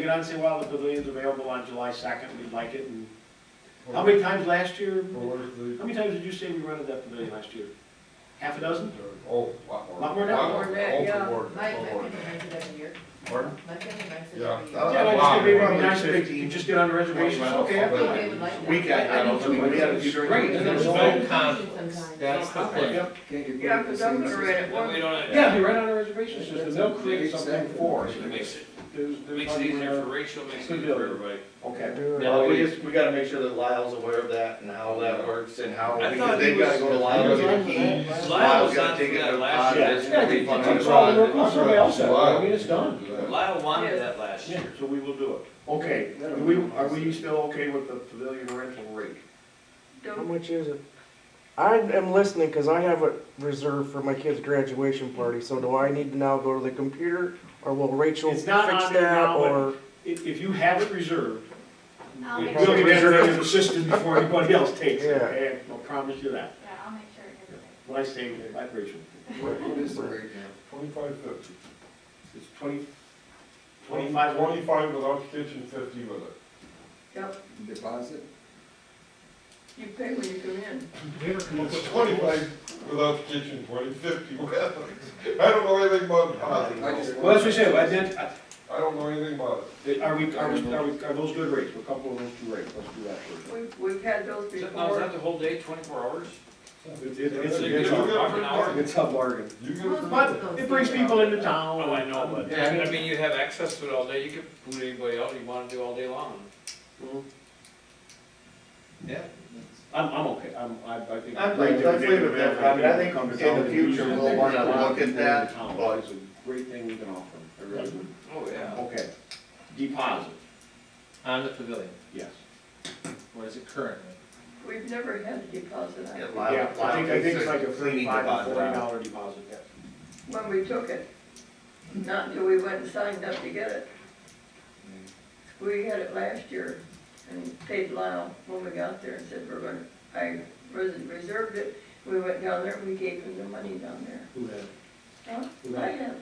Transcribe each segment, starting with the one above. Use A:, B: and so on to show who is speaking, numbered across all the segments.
A: You know, I'd say, well, the pavilion's available on July second, we'd like it, and how many times last year?
B: Or what is the-
A: How many times did you say we rented that pavilion last year? Half a dozen?
B: Oh, lot more.
A: Lot more now.
C: Or
B: Oh,
C: that, yeah,
B: more,
C: Mike,
B: more.
C: I think he makes it every year.
B: Pardon?
C: Mike, I think he makes it
B: Yeah.
C: every year.
D: Uh,
A: Yeah, like, just give me
D: wow.
A: one, nice, if you just get on reservations, okay, I'm
C: They
A: going.
C: would like that.
D: We got, I don't think we had a few
E: Great, and there's
C: Sometimes.
E: no conflict, that's the thing.
A: Yep.
C: Yeah, because I'm gonna read it
E: And
C: one.
E: we don't,
A: Yeah, be right on a reservation system, they'll create something for us.
E: it makes it,
A: There's-
E: it
A: there's
E: makes it
A: nothing
E: easier
A: where-
E: for Rachel, makes it easier for everybody.
A: Okay,
D: No, we just, we gotta make sure that Lyle's aware of that and how that works and how,
E: I
D: because
E: thought he
D: they've gotta
E: was-
D: go to Lyle to get a key.
E: Lyle was
D: gotta
E: on
D: take
E: for
D: it
E: that
D: to-
E: last
D: Yeah.
E: year. It's gonna be-
D: Yeah.
A: it's all the work, on somebody else, that way. I mean, it's done.
E: Lyle wanted that last
A: Yeah,
E: year.
A: so we will do it. Okay, are we, are we still okay with the pavilion rental rate?
F: How much is it? I am listening because I have it reserved for my kid's graduation party, so do I need to now go to the computer? Or will Rachel
A: It's
F: fix
A: not on there
F: that
A: now, but-
F: or?
A: If, if you have it reserved,
G: I'll
E: We
G: make
A: We'll
G: sure,
A: get that as assistance before anybody else takes it,
F: Yeah.
A: okay? I'll promise you that.
G: yeah, I'll make sure it gets fixed.
A: When I say vibration,
B: What what is the rate now? Twenty-five fifty.
A: it's twenty, twenty-five, one.
B: Twenty-five without kitchen, fifty with it.
C: Yep,
H: deposit?
C: you pay when you come in.
B: It's Twenty-five without kitchen, twenty, fifty with it. I don't know anything about deposit.
H: I just-
A: Well, as we said, I did,
B: I don't know anything about it.
A: I- are we, are we, are we, are those good rates? We're comfortable with those two rates, let's do that first.
C: We've, we've had those
E: Is that- Now, is
C: before.
E: that the whole day, twenty-four hours?
A: It's, it's,
B: You
A: it's a-
B: get a-
A: it's
B: you
A: a,
B: get a free-
E: an hour.
A: it's a bargain.
B: You get a free-
A: But it brings people into town.
E: Oh, I know, but,
A: Yeah,
E: I mean, you have access to it all day, you can boot anybody out you wanna do all day long.
A: Hmm?
H: Yeah.
A: I'm, I'm okay, I'm, I, I think.
D: I'm like, let's leave it there. I mean, I think in the future, we'll wanna look at that, but-
A: It's a great thing we can offer, I really would.
E: Oh, yeah.
A: Okay, deposit,
I: On the pavilion,
A: yes.
I: what is it currently?
C: We've never had a deposit on
D: Yeah,
C: it.
D: Lyle-
A: Yeah, I think, I think it's like a
D: cleaning
A: thirty-five to
D: deposit.
A: forty dollar deposit, yes.
C: When we took it, not until we went and signed up to get it. We had it last year and paid Lyle when we got there and said, we're gonna, I res- reserved it. We went down there and we gave him the money down there.
A: Who had it?
C: Huh?
A: Who
C: I
A: had it?
C: have.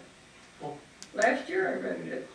A: Oh.
C: Last year I rented it.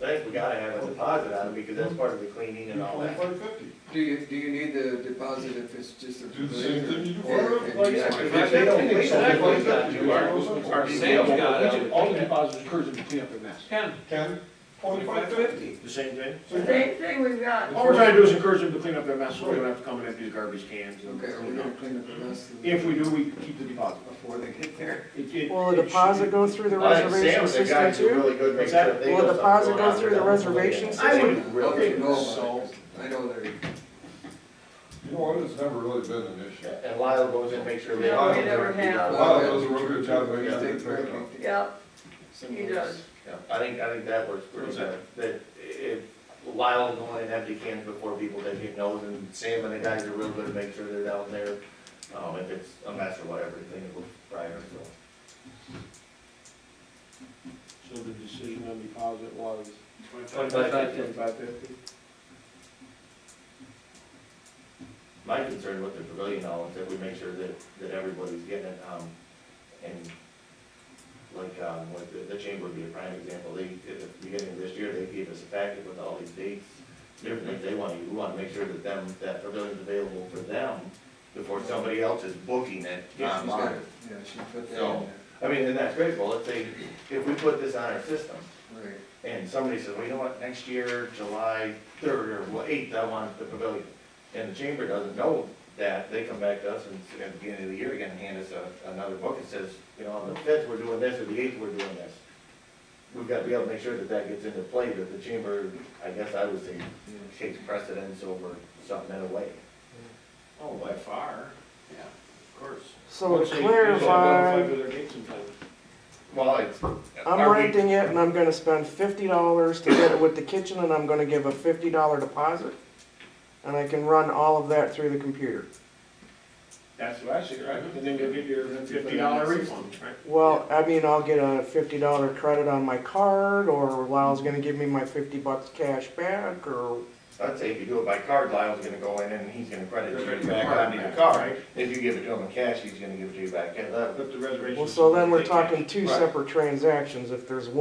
D: Thanks, we gotta have a deposit on it because that's part of the cleaning and all that.
B: Twenty-five fifty.
H: Do you, do you need the deposit if it's just a
B: Do the
H: pavilion?
B: same thing you do
H: or-
B: for a
H: and
B: place.
H: yeah,
D: Because
H: if
D: if they don't clean it,
E: Exactly.
D: it's not too hard.
B: Our
E: sales got it.
A: All the deposits occurs in cleanup and mess.
E: Ken,
B: Ken, twenty-five
E: twenty-five
B: fifty.
E: fifty.
A: The same thing?
C: Same thing we've got.
A: All we're trying to do is encourage them to clean up their mess, so we don't have to come and empty the garbage cans. and-
H: Okay, are we gonna clean up the rest of the?
A: If we do, we keep the deposit.
H: Before they get there?
A: It- it-
F: Will the
A: it
F: deposit
A: should-
F: go through the
D: I think
F: reservation
D: Sam's the guy
F: system
D: who's
F: too?
D: really good, make
A: What's that?
D: sure if they
F: Will
D: know
F: the
D: something's
F: deposit
D: going
F: go
D: on,
F: through the
D: they don't really
F: reservation
D: know.
A: I would
H: Well,
A: think
H: you know about it,
A: so.
H: 'cause I know they're,
B: You know what, it's never really been an issue.
D: And Lyle goes and makes sure they.
C: No, we never have.
B: Wow, that was a real good job, man.
H: they
B: Yeah.
H: take care of it.
C: Yeah, he
H: Someone
C: does.
H: else.
D: Yeah, I think, I think that works pretty
E: What's
D: good, that if Lyle going and empty cans before people that he knows, and Sam and the guys are real good to make sure they're down there, um, if it's a mess or whatever, thing will prior, so.
A: So the decision on deposit was?
D: Twenty-five fifty.
A: Twenty-five fifty?
D: My concern with the pavilion now is that we make sure that, that everybody's getting it, um, and like, um, with the, the chamber would be a prime example, they, at the beginning of this year, they gave us a packet with all these dates, different things they want, we wanna make sure that them, that pavilion's available for them before somebody else is booking it
H: Yeah, she's got
D: online.
H: it. Yeah, she put that
D: So-
H: in
D: I mean, and that's critical, let's say, if we put this on our system,
H: there, right.
D: and somebody says, well, you know what, next year, July third or what, eighth, I want the pavilion. And the chamber doesn't know that, they come back to us and at the beginning of the year again, and hand us a, another book that says, you know, on the fifth, we're doing this, or the eighth, we're doing this. We've got to be able to make sure that that gets into play, that the chamber, I guess I would say, takes precedence over something in a way.
E: Oh, by far, yeah, of course.
F: So to clarify,
D: Well, it's.
F: I'm
D: are we-
F: renting it and I'm gonna spend fifty dollars to get it with the kitchen and I'm gonna give a fifty dollar deposit. And I can run all of that through the computer.
A: That's what I see, right? And then you'll get your fifty dollar refund, right?
F: Well, I mean, I'll get a fifty dollar credit on my card, or Lyle's gonna give me my fifty bucks cash back, or
D: I'd say if you do it by card, Lyle's gonna go in and he's gonna credit you
A: Credit
D: back
A: card
D: on your
A: back,
D: card.
A: right.
D: If you give it to him in cash, he's gonna give it to you back. Yeah, that-
A: But the reservation.
F: Well, so then we're talking two
D: Right.
F: separate transactions, if there's one